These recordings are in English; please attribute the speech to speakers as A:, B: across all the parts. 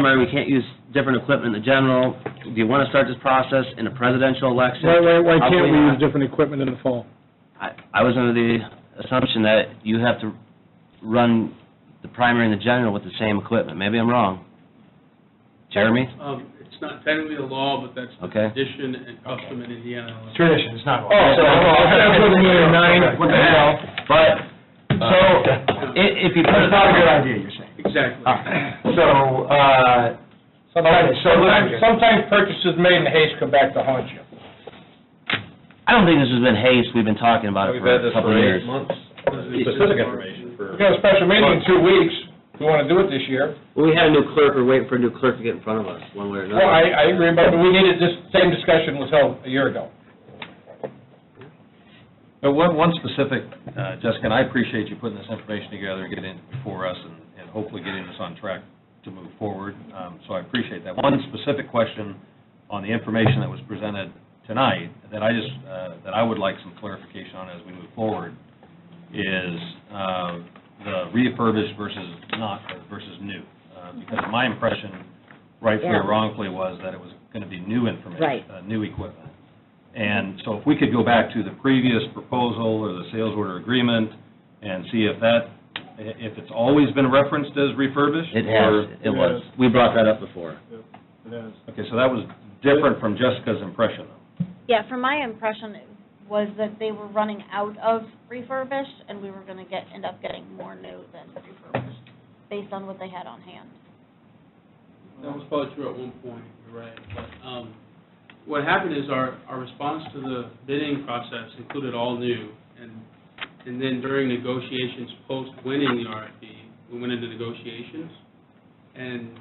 A: primary, we can't use different equipment in the general. Do you want to start this process in a presidential election?
B: Why, why, why can't
A: Probably
B: we use
A: not.
B: different equipment in the fall?
A: I I was under the assumption that you have to run the primary and the general with the same equipment. Maybe I'm wrong. Jeremy?
C: Um, It's not technically a law, but that's the
A: Okay.
C: tradition and custom in Indiana.
D: Tradition, it's not.
B: Oh, so-
A: What the hell? But, so, i- if you put
D: That's
A: it...
D: not a good idea, you're saying.
C: Exactly.
D: So, uh, okay, so
E: Sometimes,
D: let's,
E: sometimes purchases made in haste come back to haunt you.
A: I don't think this has been haste, we've been talking about it
F: We've
A: for
F: had
A: a
F: this
A: couple
F: for
A: of
F: eight
A: years.
F: months.
C: Specific
F: Specific information for.
E: We got a special meeting in two weeks, if you want to do it this year.
A: We had a new clerk, we're waiting for a new clerk to get in front of us, one way or
E: Well, I, I agree, but we needed, this same discussion was held a year ago.
F: But one, one specific, uh, Jessica, and I appreciate you putting this information together and getting it before us and, and hopefully getting us on track to move forward. Um, so I appreciate that. One specific question on the information that was presented tonight that I just, uh, that I would like some clarification on as we move forward is, uh, the refurbished versus not, versus new. Uh, because my impression, rightfully or
G: Yeah.
F: wrongfully, was that it was gonna be new information.
G: Right.
F: uh, New equipment. And so if we could go back to the previous proposal or the sales order agreement and see if that, if it's always been referenced as refurbished?
A: It
F: or-
A: has, it was. We brought that up before.
F: Okay, so that was different from Jessica's impression.
H: Yeah, from my impression it was that they were running out of refurbished, and we were going to get, end up getting more new than refurbished, based on what they had on hand.
C: That was probably true at one point, you're right. But um, what happened is our, our response to the bidding process included all new. And, and then during negotiations post-winning the RFP, we went into negotiations. And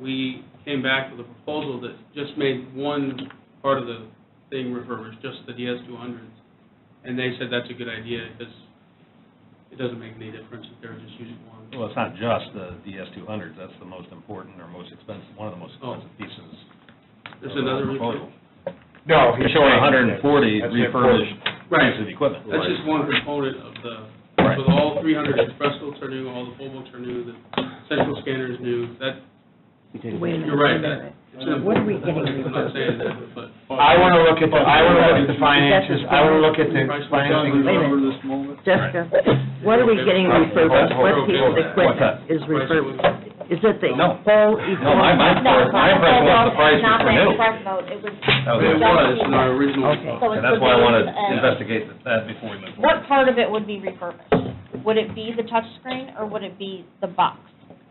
C: we came back with a proposal that just made one part of the thing refurbished, just the DS200s. And they said that's a good idea because it doesn't make any difference if they're just using one.
F: Well, it's not just the DS200s, that's the most important or most expensive, one of the most expensive pieces.
C: There's
F: of the
C: Oh. another
F: proposal.
D: no,
F: You're
D: he's
F: showing
D: showing
F: 140
D: That's the
F: refurbished
C: Right.
F: pieces of equipment.
C: That's just one component of the,
F: Right.
C: so all three hundred express books are new, all the full books are new, the central scanner is new, that,
G: Wait a minute.
C: you're right,
G: wait a minute.
C: that. it's an
G: What are we
C: important
G: getting
C: component, I'm not saying that, but.
D: I want to look at the, I want to look at the finances, I want to look at the
C: Price was
D: financing.
C: done,
G: Wait a
C: remember this
G: minute.
C: moment?
G: Jessica, what are we getting refurbished? What piece of equipment is
C: Price
G: refurbished?
C: was-
G: Is it the
F: No.
G: whole
F: No, my,
G: equipment?
F: my, my impression was the price was
H: Not
F: for
H: the
F: new.
H: express vote, it was.
D: Oh,
F: That was
C: It was in our original.
G: Okay.
H: So
F: And
H: it's
F: that's
H: the
F: why I want to
H: base and-
F: investigate that before we move forward.
H: What part of it would be refurbished? Would it be the touchscreen, or would it be the box?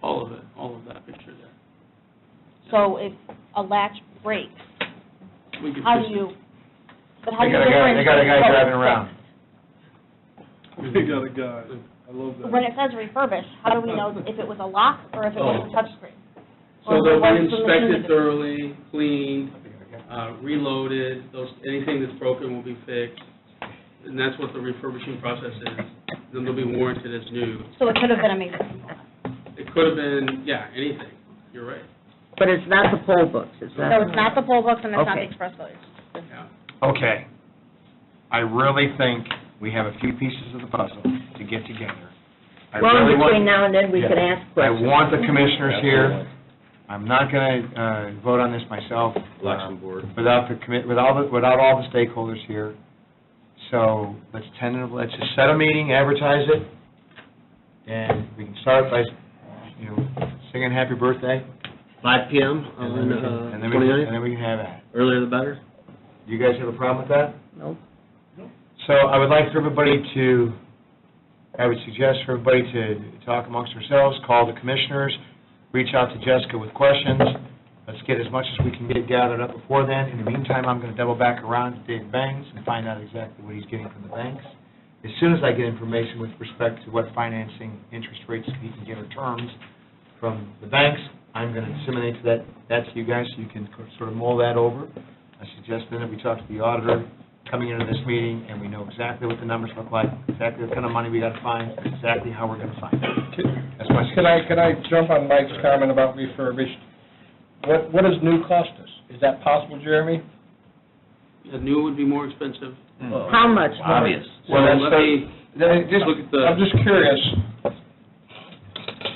C: All of it, all of that picture there.
H: So if a latch breaks,
C: We could
H: how
C: fix it.
H: do you, but how
D: They
H: do you
D: got a guy,
H: differentiate?
D: they got a guy
H: what
D: driving
H: is
D: around.
B: They got a guy, I love that.
H: When it says refurbished, how do we know if it was a lock or if it was a touchscreen?
C: Oh. So
H: Or
C: they'll
H: if it
C: be
H: was from the
C: inspected
H: community.
C: thoroughly, cleaned, uh, reloaded, those, anything that's broken will be fixed. And that's what the refurbishing process is. Then they'll be warranted as new.
H: So it could have been a major component.
C: It could have been, yeah, anything. You're right.
G: But it's not the poll books, it's
H: So
G: not,
H: it's not the poll books and it's not
G: Okay.
H: the express voters.
C: Yeah.
D: Okay. I really think we have a few pieces of the puzzle to get together. I
G: well,
D: really want-
G: between now and then, we can
D: Yeah.
G: ask
D: I
G: questions.
D: want the commissioners here. I'm not going to uh vote on this myself. uh,
A: Election board.
D: Without the commit, without, the- without all the stakeholders here. So let's tentative, let's just set a meeting, advertise it, and we can start by, you know, singing happy birthday.
A: Five PM
D: and then
A: on
D: we can-
A: uh,
D: and then we can-
A: 29th?
D: And then we can have that.
A: earlier the better.
D: Do you guys have a problem with that?
G: No.
D: So I would like for everybody to, I would suggest for everybody to talk amongst ourselves, call the commissioners, reach out to Jessica with questions. Let's get as much as we can get gathered up before then. In the meantime, I'm going to double back around to Dave Banks and find out exactly what he's getting from the banks. As soon as I get information with respect to what financing, interest rates he can get or terms from the banks, I'm going to disseminate that, that to you guys so you can sort of mull that over. I suggest then that we talk to the auditor coming into this meeting, and we know exactly what the numbers look like, exactly what kind of money we got to find, exactly how we're going to find it. That's my
E: Can I, can I jump on Mike's comment about refurbished? What, what does new cost us? Is that possible, Jeremy?
C: The new would be more expensive.
G: How much? more?
A: Obvious.
C: So
D: Hmm. Well, that's
C: let
D: the-
C: me
D: Then it just-
C: look at
E: I'm
C: the,
E: just curious.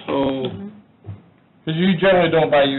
C: so
E: Because you generally don't buy used